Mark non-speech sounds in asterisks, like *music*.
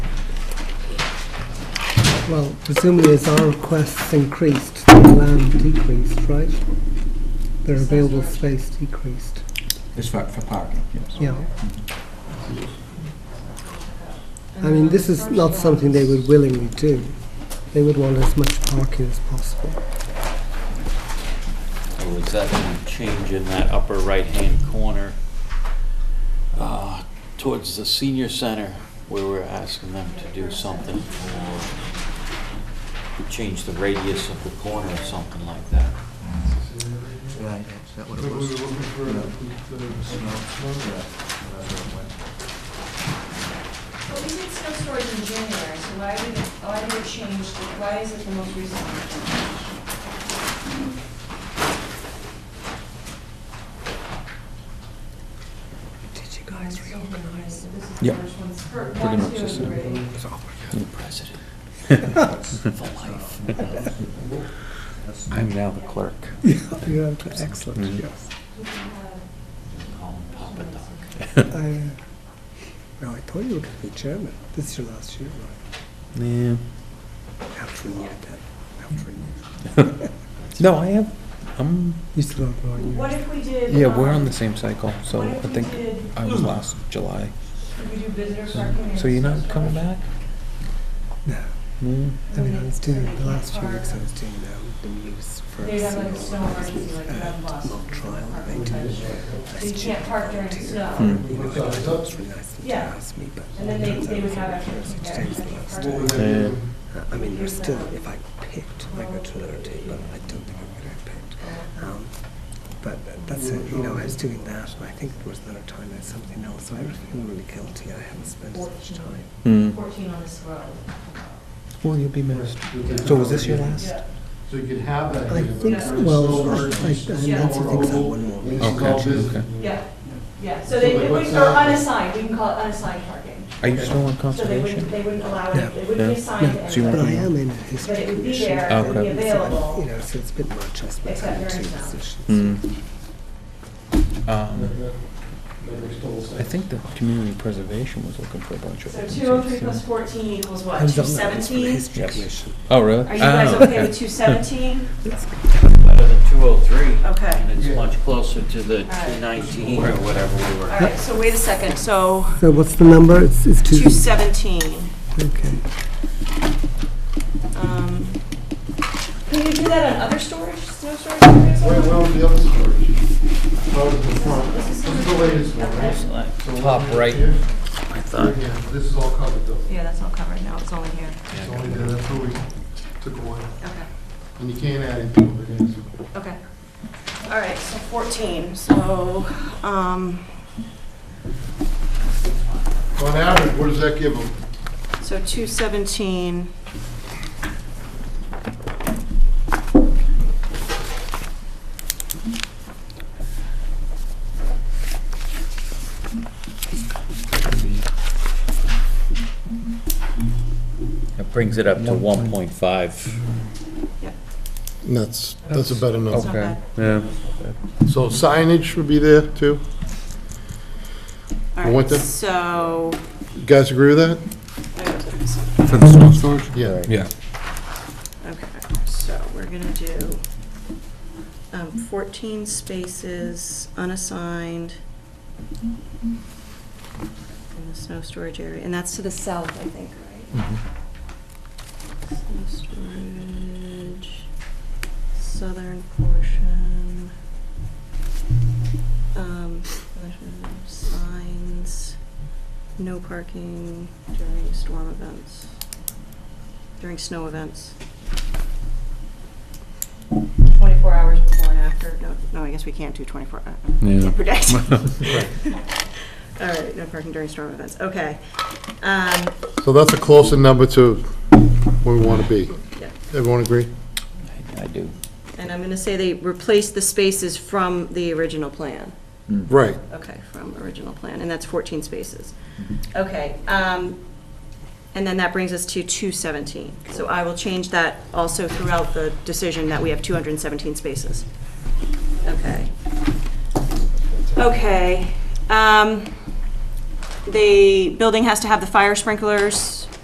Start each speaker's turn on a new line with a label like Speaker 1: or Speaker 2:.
Speaker 1: Well, presumably as our requests increased, the land decreased, right? Their available space decreased,
Speaker 2: It's for, for parking, yes.
Speaker 1: yeah. I mean, this is not something they would willingly do. They would want as much parking as possible.
Speaker 3: Oh, is that any change in that upper right-hand corner uh, towards the senior center where we're asking them to do something or to change the radius of the corner or something like that?
Speaker 2: Right, is that what it
Speaker 4: We were
Speaker 2: was?
Speaker 4: looking for the, the snow, snow grant, whatever it went.
Speaker 5: Well, we did snow storage in January, so why would, it- why did it change, the- why is it the most recent? one?
Speaker 1: Did you
Speaker 5: This is the
Speaker 2: Yep.
Speaker 5: first one's- or
Speaker 2: Pretty
Speaker 5: one,
Speaker 2: much
Speaker 5: two,
Speaker 2: the same.
Speaker 5: three.
Speaker 3: President. For life.
Speaker 2: I'm now the clerk.
Speaker 1: You have to, excellent, yes.
Speaker 3: Call him Papa Doc.
Speaker 1: I, uh, well, I thought you were going to be chairman. This is your last year, right?
Speaker 2: Yeah.
Speaker 1: After a year, then, after a year.
Speaker 2: No, I have, um,
Speaker 1: You still have one year.
Speaker 5: What if we did?
Speaker 2: yeah, we're
Speaker 5: um,
Speaker 2: on the same cycle, so
Speaker 5: What
Speaker 2: I
Speaker 5: if we
Speaker 2: think
Speaker 5: did,
Speaker 2: I was last July.
Speaker 5: could we do visitor
Speaker 2: So
Speaker 5: parking? and
Speaker 2: so you're not
Speaker 5: snow
Speaker 2: coming
Speaker 5: storage?
Speaker 2: back?
Speaker 1: No,
Speaker 2: Mm.
Speaker 1: I mean, I was doing, the last few weeks I was doing um, the news for
Speaker 5: They'd have, like,
Speaker 1: single
Speaker 5: snow emergency, like,
Speaker 1: uh,
Speaker 5: red bus.
Speaker 1: mock trial they did.
Speaker 5: So you can't park during
Speaker 2: Hmm.
Speaker 5: snow,
Speaker 1: You know, I thought it was really nice of them to
Speaker 5: Yeah.
Speaker 1: ask me, but
Speaker 5: and then they,
Speaker 2: Hmm.
Speaker 1: turns out
Speaker 5: they
Speaker 1: it
Speaker 5: would
Speaker 1: was
Speaker 5: have
Speaker 1: not.
Speaker 5: actually.
Speaker 1: Today's the last
Speaker 4: What
Speaker 1: day.
Speaker 4: were they doing?
Speaker 1: Uh, I mean, there's still, if I picked, I go to another day, but I don't think I would have picked. Um, But tha- that's it, you know, I was doing that, and I think there was another time I had something else, so I was feeling really guilty, I haven't spent as much time.
Speaker 2: Mm.
Speaker 5: Fourteen on this road.
Speaker 2: Well, you'll be missed.
Speaker 4: Right.
Speaker 2: So was this your last?
Speaker 5: Yeah.
Speaker 4: So you could have that.
Speaker 1: I
Speaker 4: here, but
Speaker 1: think
Speaker 4: it's
Speaker 5: so.
Speaker 4: snow
Speaker 1: Well, I-
Speaker 4: emergency,
Speaker 1: I- I
Speaker 4: snow
Speaker 1: mentioned things on
Speaker 4: removal,
Speaker 1: one more.
Speaker 4: and this is
Speaker 2: Okay,
Speaker 4: all business.
Speaker 2: okay.
Speaker 5: Yeah, yeah, so
Speaker 4: So
Speaker 5: they,
Speaker 4: like
Speaker 5: they
Speaker 4: what's
Speaker 5: wouldn't, or
Speaker 4: that?
Speaker 5: unassigned, we can call it unassigned parking.
Speaker 2: Are you still on
Speaker 5: So they wouldn't,
Speaker 2: conservation?
Speaker 5: they wouldn't allow
Speaker 1: Yeah.
Speaker 5: it, they wouldn't
Speaker 2: Yeah.
Speaker 5: assign it
Speaker 2: Yeah.
Speaker 5: to
Speaker 2: So you
Speaker 1: But
Speaker 2: won't
Speaker 5: anybody.
Speaker 1: I am in a history
Speaker 5: But it would be
Speaker 1: commission.
Speaker 5: there, it would be
Speaker 2: Okay.
Speaker 5: available.
Speaker 1: You know, so it's been much, I spent
Speaker 5: Except
Speaker 1: time in
Speaker 5: during
Speaker 1: two
Speaker 5: snow.
Speaker 1: positions.
Speaker 2: Mm.
Speaker 4: That-
Speaker 2: Um,
Speaker 4: that- that makes total sense.
Speaker 2: I think the community preservation was looking for a bunch of.
Speaker 5: So
Speaker 2: vacancies,
Speaker 5: two oh three plus
Speaker 2: yeah.
Speaker 5: fourteen equals
Speaker 1: I
Speaker 5: what,
Speaker 1: was
Speaker 5: two
Speaker 1: on that one for the
Speaker 5: seventeen?
Speaker 1: history
Speaker 2: Yes.
Speaker 1: commission.
Speaker 2: Oh, really?
Speaker 5: Are you guys
Speaker 2: Oh,
Speaker 5: okay with two seventeen?
Speaker 3: Better than 203.
Speaker 5: Okay.
Speaker 3: And
Speaker 4: Yeah.
Speaker 3: it's much closer to the
Speaker 5: right.
Speaker 3: 219 or whatever we
Speaker 5: All
Speaker 3: were.
Speaker 5: right, so wait a second, so
Speaker 1: So what's the number? It's, it's two.
Speaker 5: two seventeen.
Speaker 1: Okay.
Speaker 5: Can um. you do that on other storage, snow storage areas?
Speaker 4: Wait, what was the other storage? What was the front?
Speaker 5: This
Speaker 4: This
Speaker 5: is-
Speaker 4: is the latest one, right? So
Speaker 2: Top
Speaker 4: what we have
Speaker 2: right.
Speaker 4: here,
Speaker 3: I
Speaker 4: right
Speaker 3: thought.
Speaker 4: here, This is all covered though.
Speaker 5: Yeah, that's not covered now, it's only here.
Speaker 4: It's only there, that's what we took away.
Speaker 5: Okay,
Speaker 4: And you can't add it to it, it is.
Speaker 5: okay. All right, so fourteen, so, um,
Speaker 4: On average, what does that give them?
Speaker 5: so two seventeen.
Speaker 3: It brings it up to 1.5.
Speaker 4: That's, that's a better number.
Speaker 2: Okay, yeah.
Speaker 4: Oh. So signage would be there too?
Speaker 5: All
Speaker 4: I want
Speaker 5: right,
Speaker 4: that.
Speaker 5: so,
Speaker 4: You guys agree with that?
Speaker 2: For the snow storage?
Speaker 4: Yeah.
Speaker 2: Yeah.
Speaker 5: okay, so we're gonna do um, fourteen spaces unassigned in the snow storage area, and that's to the south, I think, right?
Speaker 2: Mm-hmm.
Speaker 5: Snow storage, southern portion. Um, signs, no parking during storm events, during snow events. Twenty-four hours before and after, no, no, I guess we can't do twenty-four, uh,
Speaker 2: Yeah.
Speaker 5: can't *laughs* predict. *laughs* All right, no parking during storm events, okay. Um,
Speaker 4: So that's a closer number to where we want to be.
Speaker 5: Yeah.
Speaker 4: Everyone agree?
Speaker 3: I do.
Speaker 5: And I'm going to say they replaced the spaces from the original plan.
Speaker 4: Right.
Speaker 5: Okay, from original plan, and that's 14 spaces. Okay, um, and then that brings us to 217. So I will change that also throughout the decision that we have 217 spaces. Okay. Okay, um, the building has to have the fire sprinklers